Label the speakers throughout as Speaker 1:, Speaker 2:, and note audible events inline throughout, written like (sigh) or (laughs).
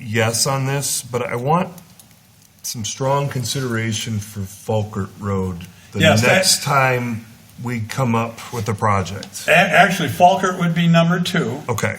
Speaker 1: yes on this, but I want some strong consideration for Falkert Road. The
Speaker 2: Yes, that-
Speaker 1: next time we come up with a project.
Speaker 2: A- Actually, Falkert would be number two.
Speaker 1: Okay.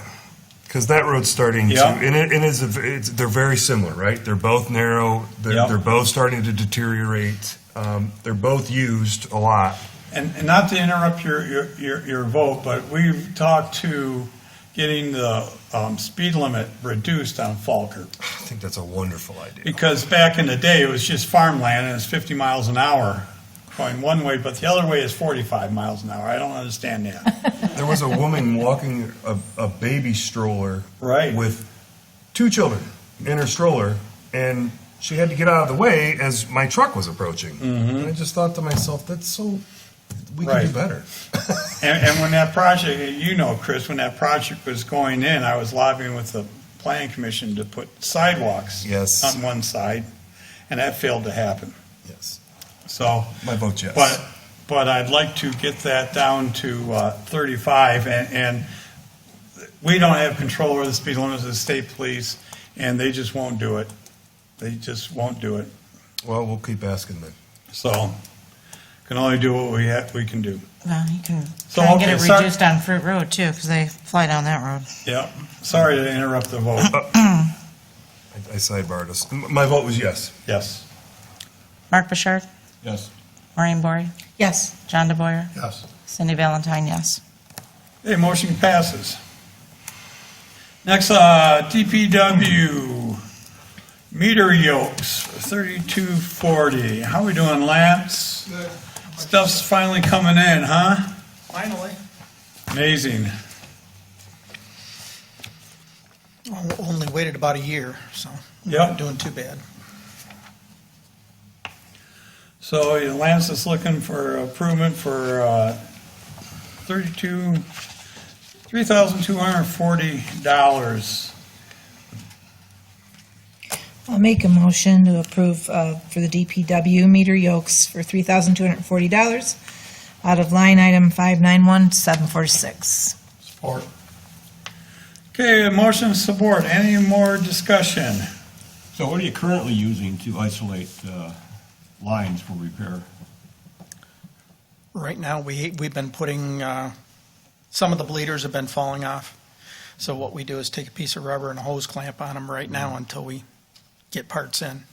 Speaker 1: Because that road's starting to,
Speaker 2: Yeah.
Speaker 1: and it, and it's, a- it's, they're very similar, right? They're both narrow. They're,
Speaker 2: Yeah.
Speaker 1: they're both starting to deteriorate. Um, they're both used a lot.
Speaker 2: And, and not to interrupt your, your, your, your vote, but we've talked to getting the um, speed limit reduced on Falkert.
Speaker 1: I think that's a wonderful idea.
Speaker 2: Because back in the day, it was just farmland and it's 50 miles an hour going one way, but the other way is 45 miles an hour. I don't understand that. (laughs)
Speaker 1: There was a woman walking a, a baby stroller
Speaker 2: Right.
Speaker 1: with two children in her stroller, and she had to get out of the way as my truck was approaching. And I just thought to myself, that's so, we can
Speaker 2: Mm-hmm. Right.
Speaker 1: do better.
Speaker 2: And, and when that project, you know, Chris, when that project was going in, I was lobbying with the planning commission to put sidewalks
Speaker 1: Yes.
Speaker 2: on one side, and that failed to happen.
Speaker 1: Yes.
Speaker 2: So,
Speaker 1: My vote, yes.
Speaker 2: But, but I'd like to get that down to uh, 35, and, and we don't have control over the speed limits of the state police, and they just won't do it. They just won't do it.
Speaker 1: well, we'll keep asking then.
Speaker 2: So, can only do what we, ha- we can do.
Speaker 3: Well, you can
Speaker 2: So,
Speaker 3: try and get
Speaker 2: okay,
Speaker 3: it
Speaker 2: sorry-
Speaker 3: reduced on Fruit Road too, because they fly down that road.
Speaker 2: Yep, sorry to interrupt the vote.
Speaker 1: I, I sidebarred us. M- My vote was yes.
Speaker 2: Yes.
Speaker 3: Mark Bouchard,
Speaker 2: Yes.
Speaker 3: Maureen Bory,
Speaker 4: Yes.
Speaker 3: John DeBoyer,
Speaker 2: Yes.
Speaker 3: Cindy Valentine, yes.
Speaker 2: Okay, motion passes. Next, uh, DPW meter yokes, thirty-two forty. How we doing, Lance? Stuff's finally coming in, huh?
Speaker 4: Finally.
Speaker 2: Amazing.
Speaker 4: Only waited about a year, so.
Speaker 2: Yep.
Speaker 4: Not doing too bad.
Speaker 2: So yeah, Lance is looking for improvement for, uh, thirty-two, three thousand two hundred and forty dollars.
Speaker 5: I'll make a motion to approve uh, for the DPW meter yokes for $3,240 out of line item 591746.
Speaker 2: Support. Okay, motion support. Any more discussion?
Speaker 6: So what are you currently using to isolate uh, lines for repair?
Speaker 4: Right now, we, we've been putting, uh, some of the bleeders have been falling off. So what we do is take a piece of rubber and a hose clamp on them right
Speaker 6: Mm-hmm.
Speaker 4: now until we get parts in.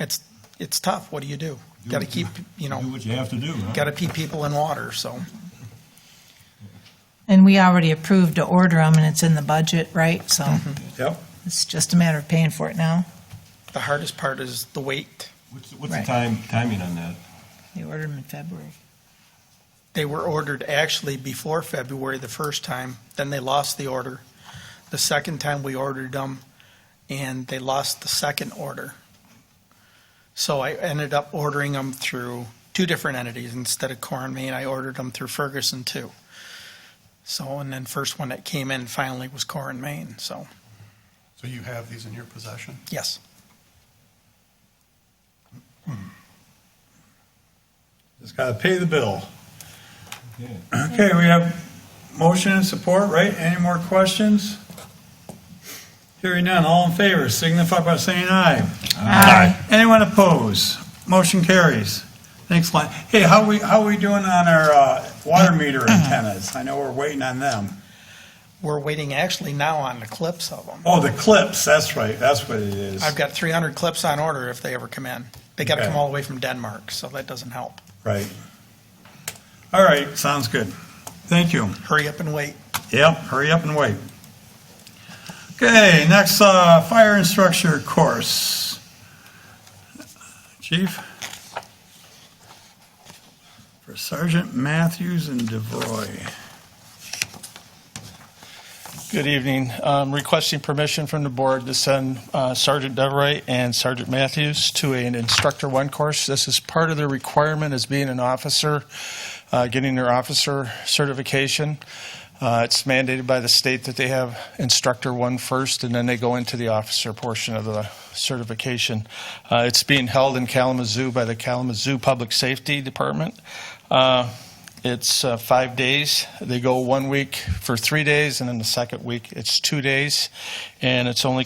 Speaker 4: It's, it's tough. What do you do?
Speaker 6: Do
Speaker 4: Got to
Speaker 6: what you-
Speaker 4: keep, you
Speaker 6: Do
Speaker 4: know,
Speaker 6: what you have to do, huh?
Speaker 4: got to keep people in water, so.
Speaker 5: And we already approved to order them, and it's in the budget, right? So
Speaker 2: Yep.
Speaker 5: it's just a matter of paying for it now.
Speaker 4: The hardest part is the weight.
Speaker 6: What's, what's the
Speaker 5: Right.
Speaker 6: time, timing on that?
Speaker 5: We ordered them in February.
Speaker 4: They were ordered actually before February the first time, then they lost the order. The second time we ordered them, and they lost the second order. So I ended up ordering them through two different entities instead of Core and Main. I ordered them through Ferguson too. So, and then first one that came in finally was Core and Main, so,
Speaker 7: So you have these in your possession?
Speaker 4: yes.
Speaker 2: Just gotta pay the bill.
Speaker 6: Okay.
Speaker 2: Okay, we have motion and support, right? Any more questions? Hearing none, all in favor, signify by saying aye. Aye. Anyone opposed? Motion carries. Thanks, Lon. Hey, how we, how we doing on our, uh, water meter antennas? I know we're waiting on them.
Speaker 4: We're waiting actually now on the clips of them.
Speaker 2: Oh, the clips, that's right, that's what it is.
Speaker 4: I've got three hundred clips on order if they ever come in. They gotta
Speaker 2: Okay.
Speaker 4: come all the way from Denmark, so that doesn't help.
Speaker 2: Right. All right, sounds good. Thank you.
Speaker 4: Hurry up and wait.
Speaker 2: Yep, hurry up and wait. Okay, next, uh, fire instructor course. Chief? For Sergeant Matthews and DeVroy.
Speaker 8: Good evening. Um, Requesting permission from the board to send uh, Sergeant Deveray and Sergeant Matthews to an Instructor One course. This is part of their requirement as being an officer, uh, getting their officer certification. Uh, It's mandated by the state that they have Instructor One first, and then they go into the officer portion of the certification. Uh, It's being held in Kalamazoo by the Kalamazoo Public Safety Department. Uh, it's uh, five days. They go one week for three days, and then the second week it's two days, and it's only